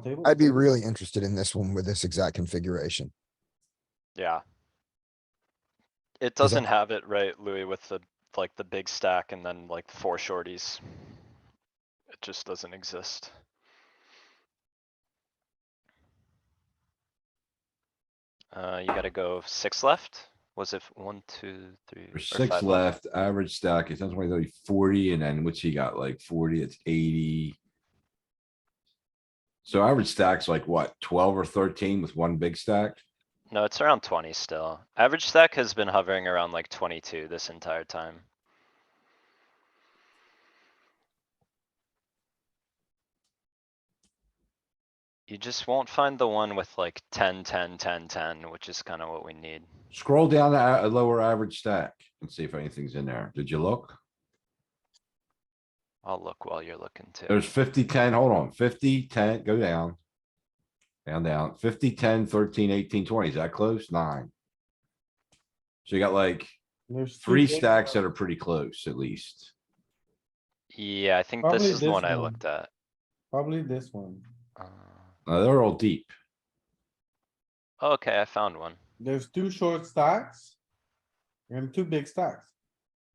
table? I'd be really interested in this one with this exact configuration. Yeah. It Is that- doesn't have it right, Louis, with the, like, the big stack and then like four shorties. It just doesn't exist. Uh, you gotta go six left? Was it one, two, three? There's or Six five left, average stack, it's on 20, 30, 40, and then what's he got, like forty, it's eighty. So average stacks like what, twelve or thirteen with one big stack? No, it's around twenty still. Average stack has been hovering around like twenty-two this entire time. You just won't find the one with like 10, 10, 10, 10, which is kinda what we need. Scroll down to a a lower average stack and see if anything's in there. Did you look? I'll look while you're looking too. There's 50, 10. hold on, 50, 10. go down. Down, down, 50, 10, 13, 18, 20. is that close? Nine. So you got like There's two three big stacks that ones. are pretty close at least. Yeah, I think this Probably is the this one I one. looked at. Probably this one. Uh, Uh, they're all deep. Okay, I found one. There's two short stacks. And two big stacks.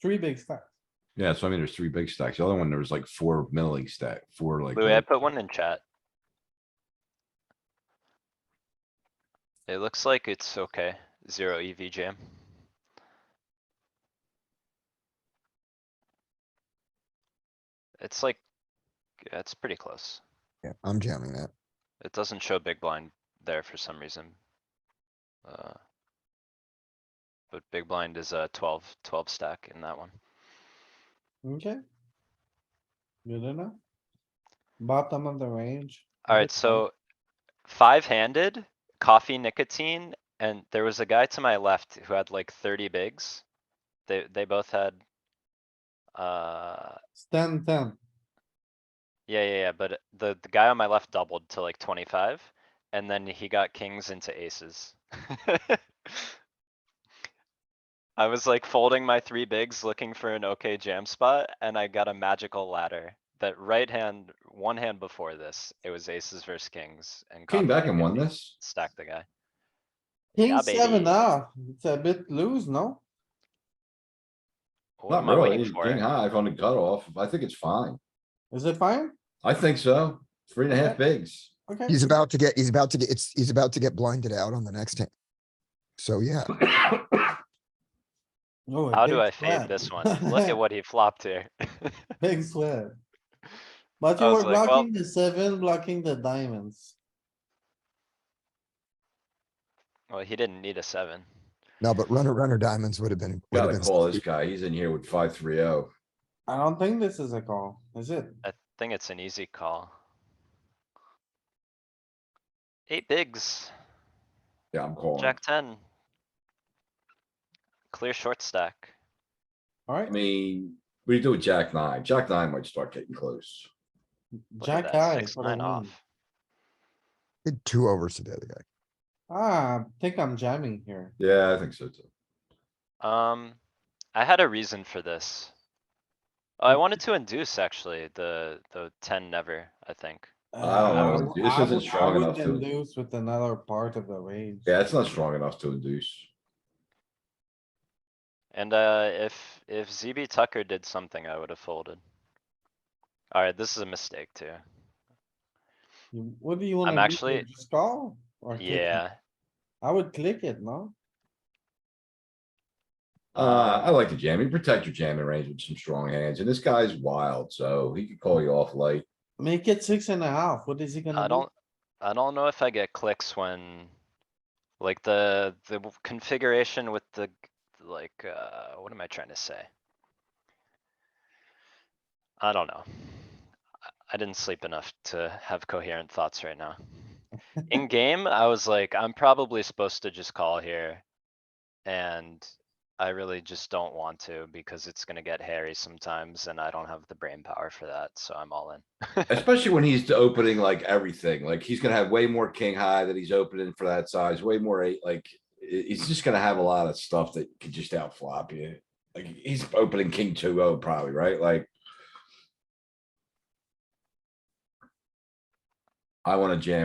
Three big stacks. Yeah, so I mean, there's three big stacks. The other one, there was like four middling stack, four like. Louis, I little- put one in chat. It looks like it's okay, zero EV jam. It's like, yeah, it's pretty close. Yeah, I'm jamming that. It doesn't show big blind there for some reason. Uh, But big blind is a 12 12 stack in that one. Okay. Good enough. Bottom of the range. Alright, so five handed, coffee nicotine, and there was a guy to my left who had like thirty bigs. They, they both had. Uh, It's ten, ten. yeah, yeah, yeah, but uh, the, the guy on my left doubled to like twenty-five, and then he got kings into aces. I was like folding my three bigs, looking for an okay jam spot, and I got a magical ladder. That right hand, one hand before this, it was aces versus kings and. coffee Came back and won nicotine. this. Stack the guy. King Yeah, seven baby. off. It's a bit loose, no? What Not am I really. waiting for? King high on the cutoff. I think it's fine. Is it fine? I think so. Three and a half bigs. Okay. He's about to get, he's about to get, it's, he's about to get blinded out on the next hand. So yeah, Oh, a How do big I fade sweat. this one? Look at what he flopped here. Big sweat. But I you were was like, well- blocking the seven, blocking the diamonds. Well, he didn't need a seven. no, but runner, runner diamonds would have been. would have Gotta been call this sweet. guy. He's in here with five, three, oh. I don't think this is a call, is it? I think it's an easy call. Eight bigs, Yeah, I'm calling. jack ten. Clear short stack. I Alright, mean, what do you do with jack nine? Jack nine might start getting close. Look at jack that, high. Six, for the nine win. off. Did Two overs to the other guy. Ah, I think I'm jamming here. Yeah, I think so too. Um, I had a reason for this. Oh, I wanted to induce actually the, the ten never, I think. Uh, know, I this would- isn't strong I would enough to- Induce with another part of the range. Yeah, it's not strong enough to induce. And uh, if, if ZB Tucker did something, I would have folded. Alright, this is a mistake too. You- What do you wanna? I'm do here? actually- Just call? or click it? Yeah, I would click it, no? Uh, I like the jam. You protect your jamming range with some strong hands and this guy's wild, so he could call you off light. Make it six and a half. What is he gonna do? I don't, I don't know if I get clicks when, like the, the w- configuration with the, g- like, uh, what am I trying to say? I don't know. I- I didn't sleep enough to have coherent thoughts right now. In game, I was like, I'm probably supposed to just call here. And I really just don't want to because it's gonna get hairy sometimes and I don't have the brain power for that, so I'm all in. Especially when he's opening like everything, like he's gonna have way more king high that he's opening for that size, way more eight, like. i- he's just gonna have a lot of stuff that could just outflop you. Like he's opening king two oh probably, right? Like. I wanna jam